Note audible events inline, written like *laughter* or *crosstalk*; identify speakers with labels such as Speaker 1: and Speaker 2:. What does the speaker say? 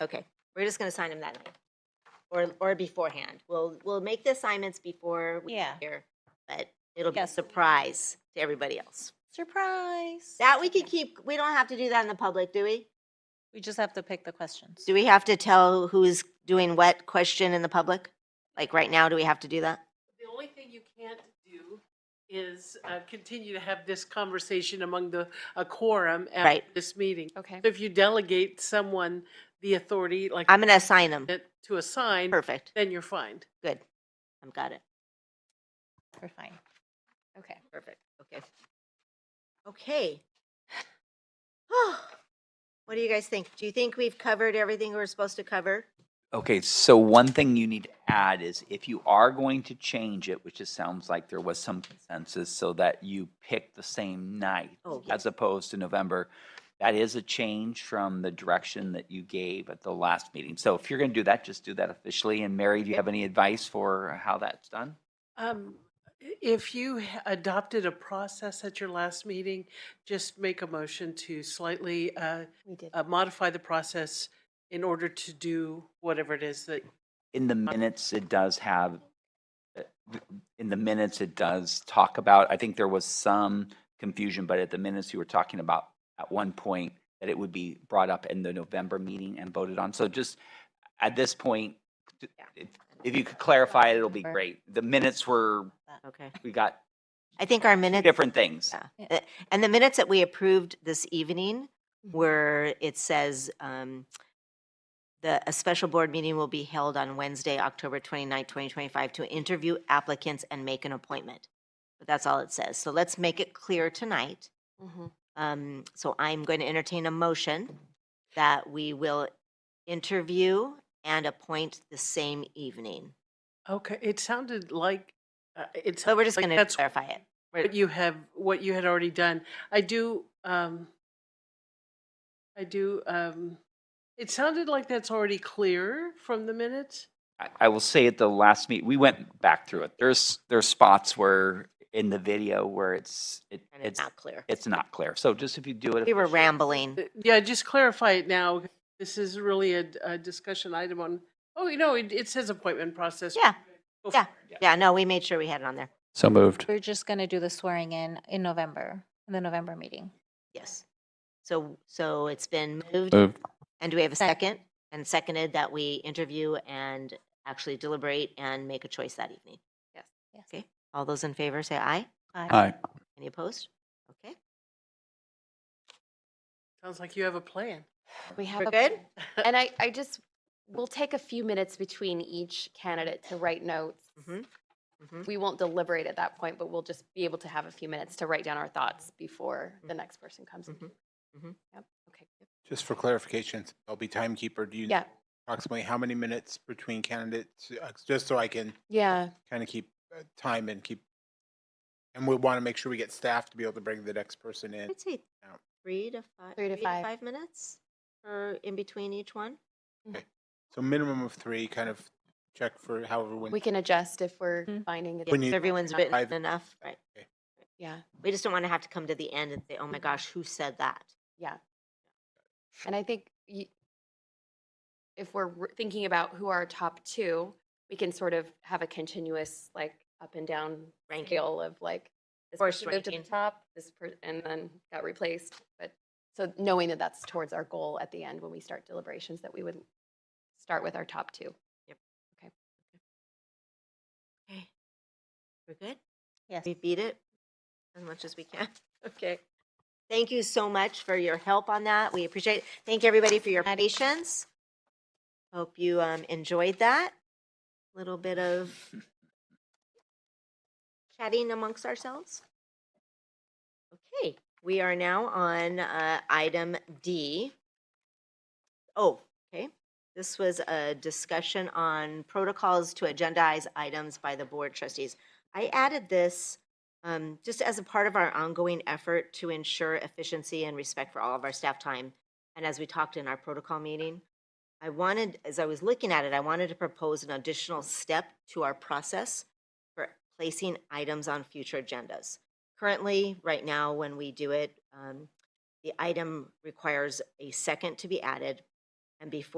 Speaker 1: Okay, we're just gonna sign them that night, or, or beforehand. We'll, we'll make the assignments before we
Speaker 2: Yeah.
Speaker 1: get here, but it'll be a
Speaker 2: Yes.
Speaker 1: surprise to everybody else.
Speaker 2: Surprise.
Speaker 1: That we could keep, we don't have to do that in the public, do we?
Speaker 2: We just have to pick the questions.
Speaker 1: Do we have to tell who's doing what question in the public? Like, right now, do we have to do that?
Speaker 3: The only thing you can't do is uh, continue to have this conversation among the, a quorum after
Speaker 1: Right.
Speaker 3: this meeting.
Speaker 4: Okay.
Speaker 3: If you delegate someone the authority, like
Speaker 1: I'm gonna assign them.
Speaker 3: it to assign,
Speaker 1: Perfect,
Speaker 3: then you're fine.
Speaker 1: good. I've got it.
Speaker 2: We're fine.
Speaker 4: Okay.
Speaker 1: Perfect, okay. Okay. *sighs* What do you guys think? Do you think we've covered everything we're supposed to cover?
Speaker 5: Okay, so one thing you need to add is if you are going to change it, which it sounds like there was some consensus, so that you pick the same night
Speaker 1: Oh, yeah.
Speaker 5: as opposed to November, that is a change from the direction that you gave at the last meeting. So if you're going to do that, just do that officially. And Mary, do you have any advice for how that's done?
Speaker 3: Um, If you h- adopted a process at your last meeting, just make a motion to slightly uh,
Speaker 2: We did.
Speaker 3: uh, modify the process in order to do whatever it is that
Speaker 5: In the minutes, it does have, uh, th- in the minutes, it does talk about, I think there was some confusion, but at the minutes, you were talking about at one point that it would be brought up in the November meeting and voted on. So just at this point, d- if, if you could clarify it, it'll be
Speaker 2: Sure.
Speaker 5: great. The minutes were,
Speaker 1: Okay.
Speaker 5: we got
Speaker 1: I think our minutes.
Speaker 5: different things.
Speaker 1: Yeah.
Speaker 2: Yeah.
Speaker 1: Uh, And the minutes that we approved this evening where it says um, the, a special board meeting will be held on Wednesday, October 29, 2025, to interview applicants and make an appointment. But that's all it says. So let's make it clear tonight.
Speaker 4: Mhm.
Speaker 1: Um, So I'm going to entertain a motion that we will interview and appoint the same evening.
Speaker 3: Okay, it sounded like, uh, it's.
Speaker 1: But we're just going to
Speaker 3: that's
Speaker 1: clarify it.
Speaker 3: What you have, what you had already done. I do, um, I do, um, it sounded like that's already clear from the minutes.
Speaker 5: I, I will say at the last meet, we went back through it. There's, there's spots where, in the video where it's, it,
Speaker 1: And it's
Speaker 5: it's,
Speaker 1: not clear.
Speaker 5: it's not clear. So just if you do it.
Speaker 1: We were
Speaker 5: officially-
Speaker 1: rambling.
Speaker 3: Uh, Yeah, just clarify it now. This is really a, a discussion item on, oh, you know, it, it says appointment process.
Speaker 1: Yeah,
Speaker 3: Go for
Speaker 1: yeah,
Speaker 3: it.
Speaker 1: yeah, no, we made sure we had it on there.
Speaker 5: So moved.
Speaker 2: We're just going to do the swearing in in November, in the November meeting.
Speaker 1: Yes. So, so it's been moved,
Speaker 6: Moved.
Speaker 1: and do we have a
Speaker 2: Sec-
Speaker 1: second? And seconded that we interview and actually deliberate and make a choice that evening.
Speaker 2: Yes.
Speaker 1: Okay. All those in favor, say aye.
Speaker 2: Aye.
Speaker 6: Aye.
Speaker 1: Any opposed? Okay,
Speaker 3: Sounds like you have a plan.
Speaker 4: We have
Speaker 1: we're
Speaker 4: a-
Speaker 1: good?
Speaker 4: *laughs* And I, I just, we'll take a few minutes between each candidate to write notes.
Speaker 1: Mhm. Mhm.
Speaker 4: We won't deliberate at that point, but we'll just be able to have a few minutes to write down our thoughts before the next person comes. in.
Speaker 1: Mhm. Mhm.
Speaker 4: Yep, okay.
Speaker 7: Just for clarification, I'll be timekeeper. Do you know
Speaker 4: Yeah,
Speaker 7: approximately how many minutes between candidates? Uh, Just so I can
Speaker 4: yeah,
Speaker 7: kind of keep uh, time and keep, and we want to make sure we get staff to be able to bring the next person in.
Speaker 1: I'd say
Speaker 7: Out.
Speaker 1: three to five.
Speaker 4: Three to five.
Speaker 1: Five minutes or in between each one?
Speaker 7: So minimum of three, kind of check for however. when-
Speaker 4: we can adjust if we're
Speaker 2: Mhm.
Speaker 4: finding
Speaker 1: Yeah,
Speaker 7: When
Speaker 4: that,
Speaker 1: if
Speaker 7: you-
Speaker 1: everyone's written
Speaker 7: I've-
Speaker 1: enough, right?
Speaker 4: yeah,
Speaker 1: We just don't want to have to come to the end and say, oh my gosh, who said that?
Speaker 4: yeah. And I think y- if we're r- thinking about who our top two, we can sort of have a continuous, like, up and down
Speaker 1: Ranking.
Speaker 4: scale of like this
Speaker 1: Force
Speaker 4: person moved to the
Speaker 1: ranking.
Speaker 4: top, this per- and then got replaced. But so knowing that that's towards our goal at the end when we start deliberations, that we would start with our top two.
Speaker 1: Okay. We're good?
Speaker 2: Yes.
Speaker 1: We beat it as much as we can. *laughs* Okay. Thank you so much for your help on that. We appreciate it. Thank everybody for your
Speaker 2: Maddie.
Speaker 1: patience. Hope you um, enjoyed that. Little bit of chatting amongst ourselves. Okay, we are now on uh, item D. Oh, okay. This was a discussion on protocols to agendize items by the board trustees. I added this um, just as a part of our ongoing effort to ensure efficiency and respect for all of our staff time. And as we talked in our protocol meeting, I wanted, as I was looking at it, I wanted to propose an additional step to our process for placing items on future agendas. Currently, right now, when we do it, um, the item requires a second to be added. And before